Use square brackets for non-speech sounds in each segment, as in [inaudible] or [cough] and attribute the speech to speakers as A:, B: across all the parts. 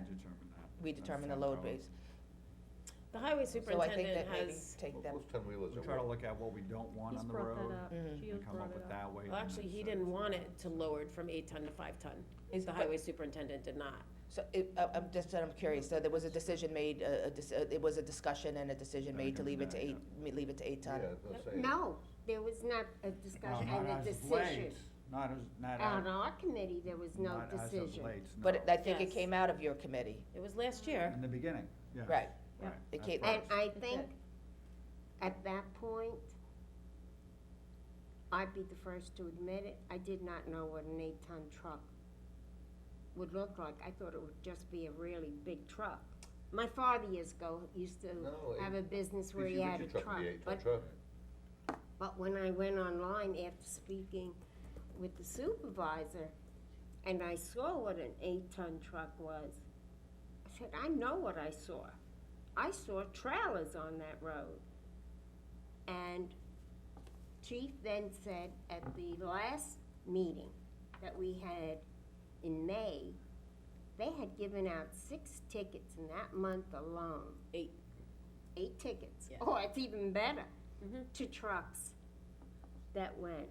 A: determine that.
B: we
A: That's
B: determine the
A: town
B: load
A: code.
B: base.
C: The highway
B: So I think
C: superintendent
B: that maybe
C: has,
B: take them,
D: Most ten-wheelers
A: We
D: are.
A: try to look at what we don't want
E: He's
A: on the
E: brought
A: road
E: that up.
B: Mhm.
E: Gio's
A: and come
E: brought
A: up
E: it
A: with
E: up.
A: that way.
C: well, actually, he didn't want it to lowered from eight ton to five ton.
B: Is-
C: The
B: but-
C: highway superintendent did not.
B: so it, I- I'm just, I'm curious, so there was a decision made, a, a dis- uh, it was a discussion and a decision
A: Then
B: made to
A: come
B: leave it to
A: back,
B: eight, me- leave it to eight ton?
D: Yeah, let's say.
F: No, there was not a discussion and a decision.
A: Not as, not
F: On
A: as,
F: our committee, there was no
A: not as of
F: decision.
A: late,
B: But it-
A: no.
B: I think it
C: Yes.
B: came out of your committee,
C: It was last year.
A: In the beginning, yeah.
B: right?
A: Right.
B: It
A: at
B: came-
F: And
A: first.
F: I think at that point, I'd be the first to admit it, I did not know what an eight-ton truck would look like. I thought it would just be a really big truck. My father years ago used to
D: No,
F: have a business where
D: If
F: he
D: you
F: had a
D: get your
F: truck,
D: be eight-ton
F: but
D: truck.
F: But when I went online after speaking with the supervisor and I saw what an eight ton truck was, I said, I know what I saw. I saw trailers on that road. And Chief then said at the last meeting that we had in May, they had given out six tickets in that month alone.
C: Eight.
F: Eight tickets.
C: Yeah.
F: Oh, it's even better
C: Mhm.
F: to trucks that went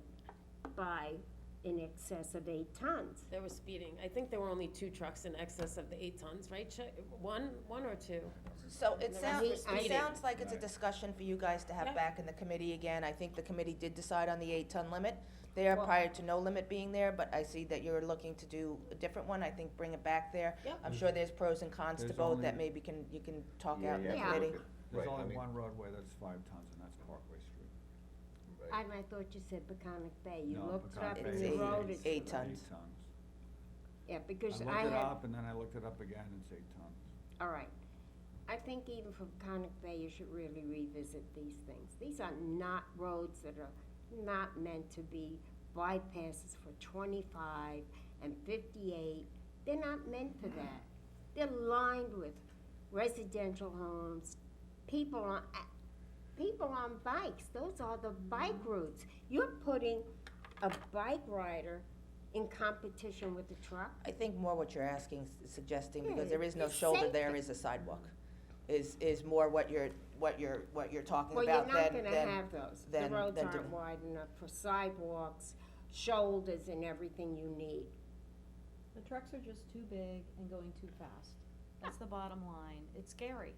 F: by in excess of eight tons.
C: There was speeding. I think there were only two trucks in excess of the eight tons, right? Chi- One, one or two?
B: So it
C: The
B: sounds,
F: rest were
B: it
F: speeding.
B: sounds like it's a
A: Right.
B: discussion for you guys to have
C: Yeah.
B: back in the committee again. I think the committee did decide on the eight-ton limit there
C: Well-
B: prior to no limit being there, but I see that you're looking to do a different one. I think bring it back there.
C: Yep.
B: I'm sure there's pros and cons to
A: There's
B: both that
A: only-
B: maybe can, you can talk
D: Yeah,
B: out in the
D: yeah,
F: Yeah.
B: committee.
D: look at-
A: There's
D: right, I
A: only
D: mean,
A: one roadway that's five tons, and that's Parkway Street.
D: right.
F: And I thought you said Peconic Bay, you
A: No,
F: looked
A: Peconic
F: up
B: Bay
F: and you
B: is eight-
F: wrote it.
B: eight tons.
A: Eight tons.
F: Yeah,
A: I
F: because I
A: looked it
F: had,
A: up, and then I looked it up again, it's eight tons.
F: all right. I think even for Peconic Bay, you should really revisit these things. These are not roads that are not meant to be bypasses for twenty-five and fifty-eight. They're not meant for that. They're lined with residential homes, people on, people on bikes, those are the bike routes. You're putting a bike rider in competition with a truck.
B: I think more what you're asking, s- suggesting, because
F: Yeah,
B: there is no
F: Hmm, it's
B: shoulder,
F: safety.
B: there is a sidewalk, is, is more what you're, what you're, what you're talking
F: Well, you're
B: about
F: not
B: than,
F: gonna
B: than,
F: have those. The
B: then-
F: roads
B: then
F: aren't
B: do-
F: wide enough for sidewalks, shoulders and everything you need.
E: The trucks are just too big and going too fast. That's the bottom line. It's scary.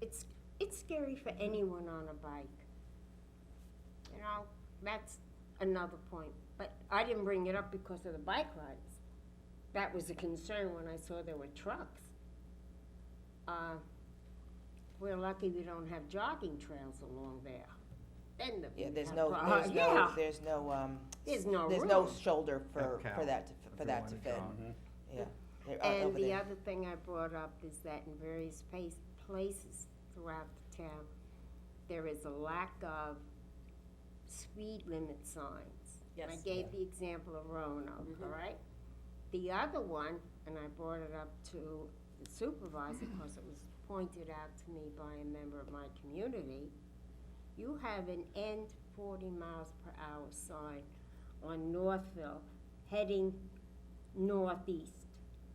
F: It's, it's scary for anyone on a bike. You know, that's another point. But I didn't bring it up because of the bike rides. That was a concern when I saw there were trucks. Uh, we're lucky we don't have jogging trails along there. Then the.
B: yeah, there's no,
F: Uh, [laughs]
B: there's no,
F: yeah.
B: there's no, um,
F: There's no
B: there's no
F: room.
B: shoulder for,
A: Cat
B: for
A: cow,
B: that, to-
A: if
B: for
A: you
B: that
A: wanna
B: to fit,
A: count.
B: yeah. They're out
F: And
B: uh, over
F: the
B: there.
F: other thing I brought up is that in various place, places throughout the town, there is a lack of speed limit signs. I
C: Yes.
F: gave the example of Roanoke,
B: Mm-hmm.
F: all right? The other one, and I brought it up to the supervisor, because it was pointed out to me by a member of my community, you have an end forty miles per hour sign on Northville heading northeast.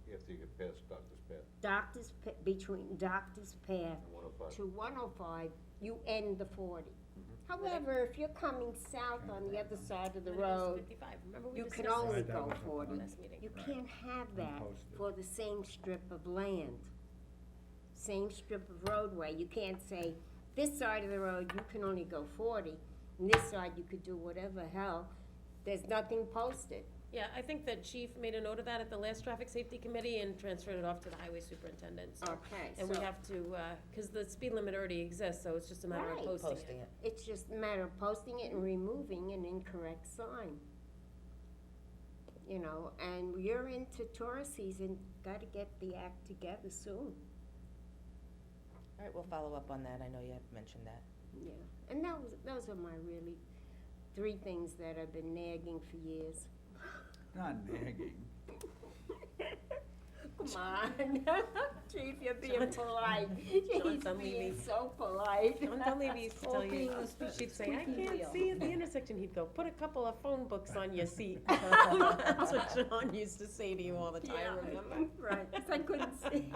D: If you get past Doctor's Path
F: Doctor's, Pa- between Doctor's Path
D: and one oh five.
F: to one oh five, you end the forty. However, if you're coming south on the other side of the
C: Then it goes to
F: road,
C: Fifty-five, remember we
F: you
C: discussed
F: can
C: this
F: only
A: Right, that
F: go
A: was a
F: forty.
C: last meeting?
F: You can't have that
A: Unposted.
F: for the same strip of land. Same strip of roadway, you can't say, this side of the road, you can only go forty, and this side, you could do whatever hell, there's nothing posted.
C: Yeah, I think that chief made a note of that at the last traffic safety committee and transferred it off to the highway superintendent, so.
F: Okay,
C: And we
F: so-
C: have to, uh 'cause cause the speed limit already exists, so it's just a matter of
F: Right.
C: posting it.
B: Posting it.
F: It's just a matter of posting it and removing an incorrect sign. You know, and you're into tourist season, gotta get the act together soon,
B: All right, we'll follow up on that. I know you had mentioned that.
F: yeah. And that was, those are my really three things that I've been nagging for years.
A: Not nagging.
F: [laughs] Come on, [laughs] Chief, you're being
C: John-
F: polite.
C: John
F: [laughs] He's
C: Dunleavy.
F: being so polite.
C: John Dunleavy
F: [laughs]
C: used to tell you,
E: Talking was
C: she'd say, I
E: squeaky
C: can't
E: wheel."
C: see at the intersection, he'd go, put a couple of phone books on your [laughs] seat. That's what John used to say to you all the time,
F: Yeah,
C: remember?
F: [laughs] Right, 'cause I couldn't see.